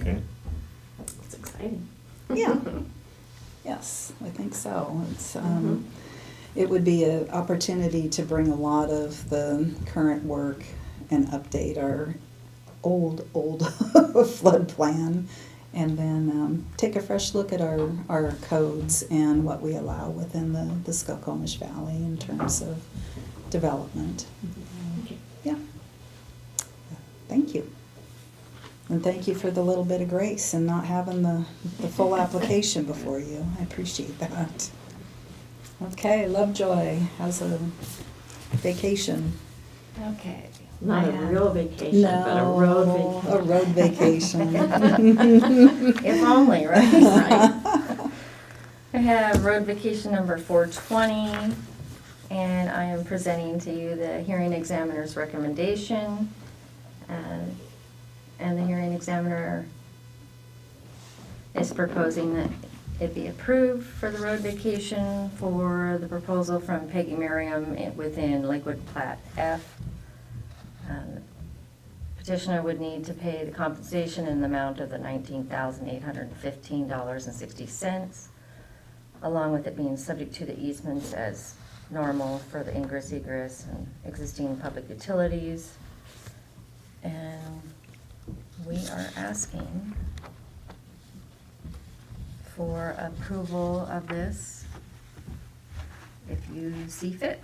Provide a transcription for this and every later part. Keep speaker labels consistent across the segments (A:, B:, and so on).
A: Okay.
B: It's exciting.
C: Yeah. Yes, I think so. It's, um, it would be an opportunity to bring a lot of the current work and update our old, old flood plan. And then, um, take a fresh look at our, our codes and what we allow within the, the Skokomish Valley in terms of development.
B: Okay.
C: Yeah. Thank you. And thank you for the little bit of grace and not having the, the full application before you. I appreciate that. Okay, Lovejoy, how's a vacation?
D: Okay.
B: Not a
D: I, uh,
B: real vacation, but a
C: No,
B: road
C: A
B: vacation.
C: road vacation.
D: If only, right? Right. I have road vacation number 420, and I am presenting to you the hearing examiner's recommendation. uh, And the hearing examiner is proposing that it be approved for the road vacation for the proposal from Peggy Merriam within Lakewood Plat F. Um, Petitioner would need to pay the compensation in the amount of the nineteen thousand eight hundred and fifteen dollars and sixty cents, along with it being subject to the easements as normal for the ingress, egress, and existing public utilities. And we are asking for approval of this if you see fit.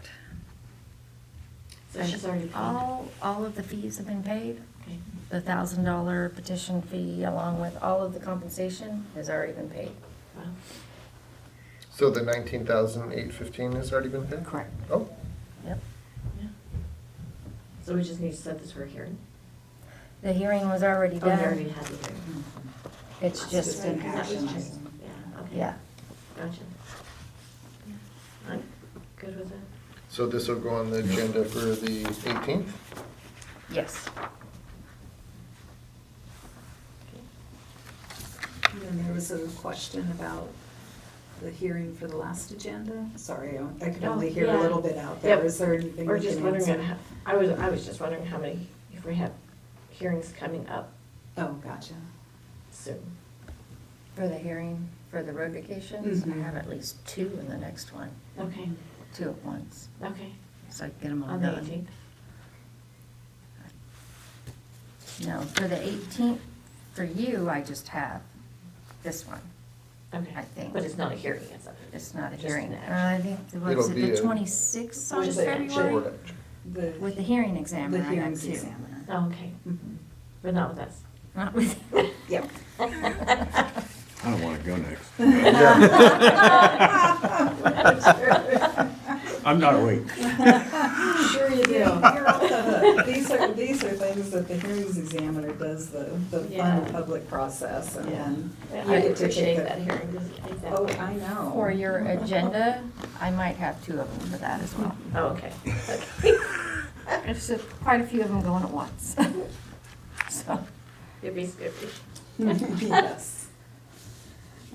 B: So she's already paid.
D: All, all of the fees have been paid?
C: Oh.
B: Okay.
D: The thousand dollar petition fee along with all of the compensation has already been paid.
B: Wow.
E: So the nineteen thousand eight fifteen has already been paid?
D: Correct.
E: Oh,
D: Yep.
B: Yeah. So we just need to set this for a hearing?
D: The hearing was already
B: Oh, we already
D: done.
B: had the hearing.
D: It's just
C: an
D: been
B: That was
C: action
B: just-
C: item.
B: Yeah, okay.
D: Yeah.
B: Gotcha. I'm good with that.
E: so this will go on the agenda for the eighteenth?
D: Yes.
C: And then there was a question about the hearing for the last agenda. Sorry, I- I could
B: Oh,
C: only hear a
B: yeah.
C: little bit out there.
B: Yep.
C: Is there anything
B: Or
C: you
B: just
C: can
B: wondering,
C: answer?
B: on how- I was, I was just wondering how many, if we have hearings coming up
C: Oh, gotcha.
B: soon.
D: For the hearing, for the road vacations, I
B: Mm-hmm.
C: Mhm.
D: have at least two in the next one,
B: Okay,
D: two at once.
B: okay.
D: So I can
C: Oh
D: get them all
B: On the
D: done.
B: 18th?
D: No, for the eighteenth, for you, I just have this one.
B: Okay.
D: I think.
B: But it's not a hearing, it's a.
D: It's not a
B: Just
D: hearing.
B: an
D: Uh,
B: action.
D: I think, what
E: It'll
D: is it,
E: be
D: the
E: a-
D: twenty-sixth
B: Or
D: of
B: just an action.
D: February? With the hearing
C: The
D: examiner, I
C: hearing
D: have two.
C: examiner.
B: Oh, okay,
C: Mhm.
B: but not with us.
D: Not with
C: Yep.
A: I don't want to go next. I'm not awake.
C: Sure you do. You're off the hook. These are, these are things that the hearings examiner does, the, the
B: Yeah.
C: fun public process and then.
B: Yeah,
C: you
B: I
C: get to take
B: appreciate
C: the-
B: that hearing, because exactly.
C: Oh, I know.
D: For your agenda, I might have two of them for that as well.
B: Oh, okay.
D: There's quite a few of them going at once. So,
B: Yippee skippy.
C: Yes.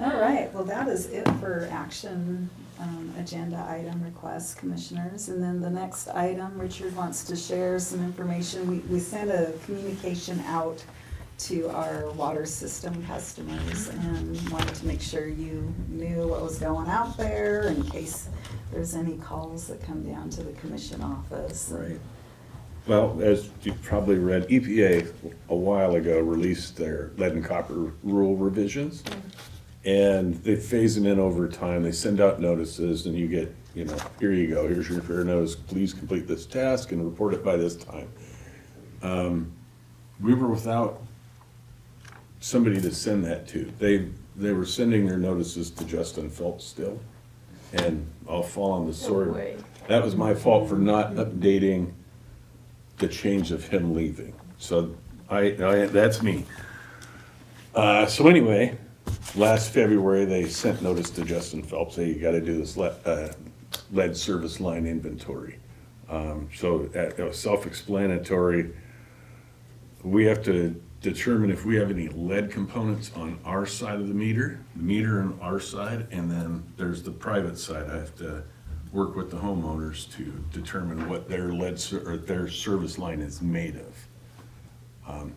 C: All right, well, that is it for action, um, agenda item requests, commissioners. And then the next item, Richard wants to share some information. We, we sent a communication out to our water system customers and wanted to make sure you knew what was going out there in case there's any calls that come down to the commission office.
A: Right. Well, as you probably read, EPA a while ago released their lead and copper rule revisions. And they phase them in over time. They send out notices and you get, you know, here you go, here's your fair notice. Please complete this task and report it by this time. Um, We were without somebody to send that to. They, they were sending their notices to Justin Phelps still. And I'll fall on the sword.
B: way.
A: That was my fault for not updating the change of him leaving. So I, I that's me. Uh, so anyway, last February, they sent notice to Justin Phelps, hey, you gotta do this lead, uh, lead service line inventory. Um, so that, that was self-explanatory. We have to determine if we have any lead components on our side of the meter, the meter on our side, and then there's the private side. I have to work with the homeowners to determine what their lead, ser- or their service line is made of. Um,